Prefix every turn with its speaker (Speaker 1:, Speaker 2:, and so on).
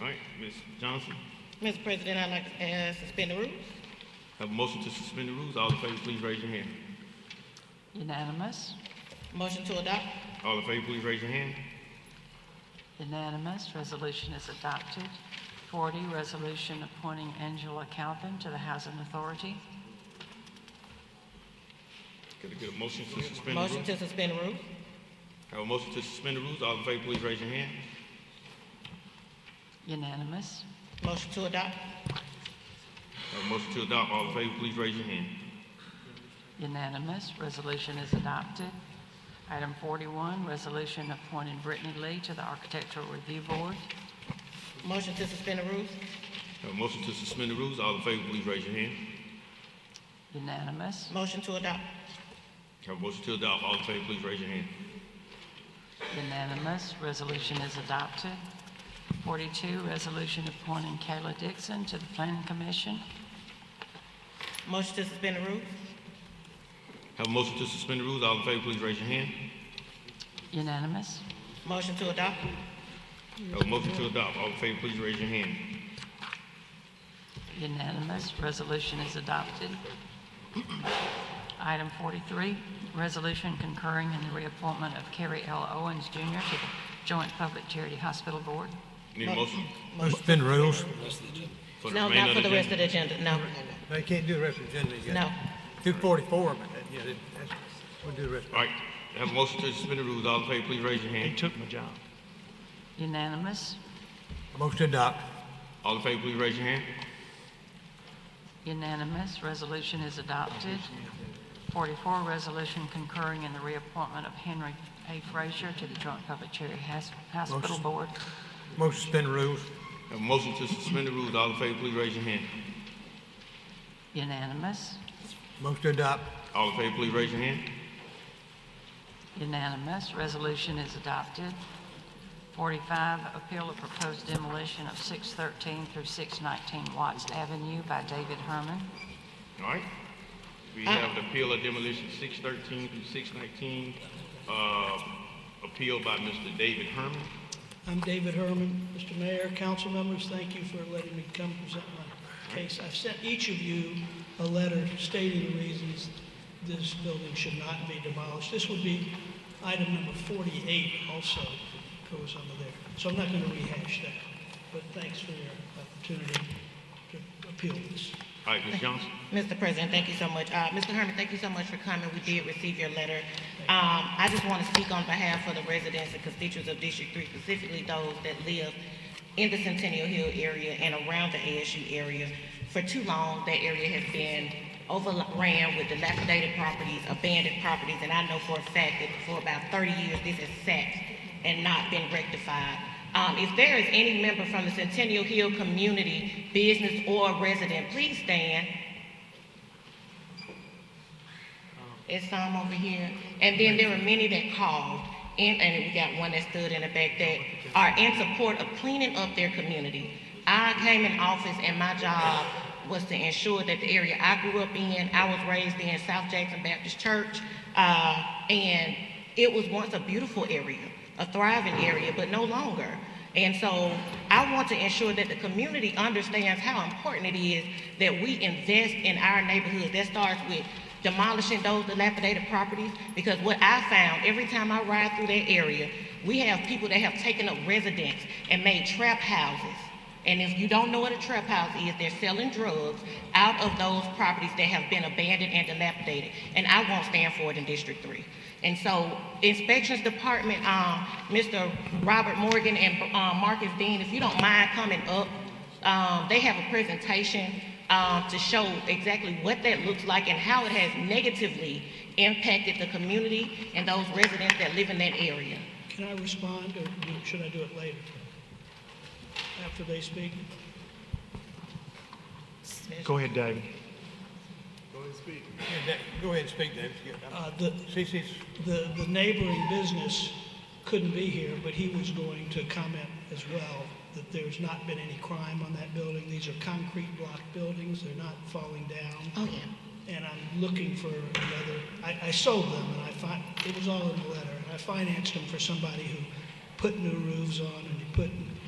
Speaker 1: All right, Ms. Johnson,
Speaker 2: Mr. President, I'd like to uh, suspend the rules.
Speaker 1: have a motion to suspend the rules. All in favor, please raise your hand.
Speaker 3: Unanimous,
Speaker 2: Motion to adopt.
Speaker 1: All in favor, please raise your hand.
Speaker 3: unanimous, resolution is adopted. 40, resolution appointing Angela Calvin to the Housing Authority.
Speaker 1: Could I get a motion to suspend the rules?
Speaker 2: Motion to suspend the rules.
Speaker 1: Have a motion to suspend the rules. All in favor, please raise your hand.
Speaker 3: Unanimous,
Speaker 2: Motion to adopt.
Speaker 1: Have a motion to adopt. All in favor, please raise your hand.
Speaker 3: unanimous, resolution is adopted. Item 41, resolution appointing Brittany Lee to the Architectural Review Board.
Speaker 2: Motion to suspend the rules.
Speaker 1: Have a motion to suspend the rules. All in favor, please raise your hand.
Speaker 3: Unanimous,
Speaker 2: Motion to adopt.
Speaker 1: Have a motion to adopt. All in favor, please raise your hand.
Speaker 3: unanimous, resolution is adopted. 42, resolution appointing Kayla Dixon to the Planning Commission.
Speaker 2: Motion to suspend the rules.
Speaker 1: Have a motion to suspend the rules. All in favor, please raise your hand.
Speaker 3: Unanimous,
Speaker 2: Motion to adopt.
Speaker 1: Have a motion to adopt. All in favor, please raise your hand.
Speaker 3: Unanimous, resolution is adopted. Item 43, resolution concurring in the reappointment of Kerry L. Owens Jr. to the Joint Public Charity Hospital Board.
Speaker 1: Need a motion
Speaker 4: Suspend rules.
Speaker 1: for the
Speaker 2: No,
Speaker 1: remainder
Speaker 2: not
Speaker 1: of
Speaker 2: for
Speaker 1: the
Speaker 2: the rest
Speaker 1: agenda?
Speaker 2: of the agenda, no.
Speaker 4: They can't do the rest of the agenda yet.
Speaker 2: No.
Speaker 4: Do forty-four, but, that- yeah, that- that's, we'll do the rest.
Speaker 1: All right, have a motion to suspend the rules. All in favor, please raise your hand.
Speaker 5: took my job.
Speaker 3: Unanimous,
Speaker 4: Motion to adopt.
Speaker 1: All in favor, please raise your hand.
Speaker 3: unanimous, resolution is adopted. 44, resolution concurring in the reappointment of Henry A. Frazier to the Joint Public Charity Has- Hospital
Speaker 4: Motion.
Speaker 3: Board.
Speaker 4: Motion to suspend rules.
Speaker 1: Have a motion to suspend the rules. All in favor, please raise your hand.
Speaker 3: Unanimous,
Speaker 4: Motion to adopt.
Speaker 1: All in favor, please raise your hand.
Speaker 3: Unanimous, resolution is adopted. 45, appeal of proposed demolition of 613 through 619 Watts Avenue by David Herman.
Speaker 1: All right. We have an appeal of demolition six thirteen through six nineteen, uh, appeal by Mr. David Herman.
Speaker 6: I'm David Herman. Mr. Mayor, council members, thank you for letting me come present my case. I've sent each of you a letter stating the reasons this building should not be demolished. This would be item number 48 also goes under there. So I'm not going to rehash that, but thanks for your opportunity to appeal this.
Speaker 1: All right, Ms. Johnson.
Speaker 2: Mr. President, thank you so much. Uh, Mr. Herman, thank you so much for coming. We did receive your letter. Um, I just want to speak on behalf of the residents and constituents of District Three, specifically those that live in the Centennial Hill area and around the ASU area. For too long, that area has been overran with dilapidated properties, abandoned properties, and I know for a fact that for about thirty years, this has sat and not been rectified. Um, if there is any member from the Centennial Hill community, business or resident, please stand. It's some over here. And then there were many that called, and, and we got one that stood in the back that are in support of cleaning up their community. I came in office and my job was to ensure that the area I grew up in, I was raised in South Jackson Baptist Church, uh, and it was once a beautiful area, a thriving area, but no longer. And so I want to ensure that the community understands how important it is that we invest in our neighborhoods. That starts with demolishing those dilapidated properties because what I found every time I ride through that area, we have people that have taken up residence and made trap houses. And if you don't know what a trap house is, they're selling drugs out of those properties that have been abandoned and dilapidated. And I won't stand for it in District Three. And so Inspections Department, um, Mr. Robert Morgan and, um, Marcus Dean, if you don't mind coming up, um, they have a presentation um, to show exactly what that looks like and how it has negatively impacted the community and those residents that live in that area.
Speaker 6: Can I respond, or do- should I do it later? After they speak?
Speaker 5: Go ahead, David.
Speaker 4: Yeah, that- Go ahead and speak, David.
Speaker 6: Uh, The,
Speaker 4: CC's,
Speaker 6: the, the neighboring business couldn't be here, but he was going to comment as well that there's not been any crime on that building. These are concrete block buildings, they're not falling down.
Speaker 2: Oh, yeah.
Speaker 6: And I'm looking for another, I, I sold them and I fin, it was all in the letter. And I financed them for somebody who put new roofs on and he put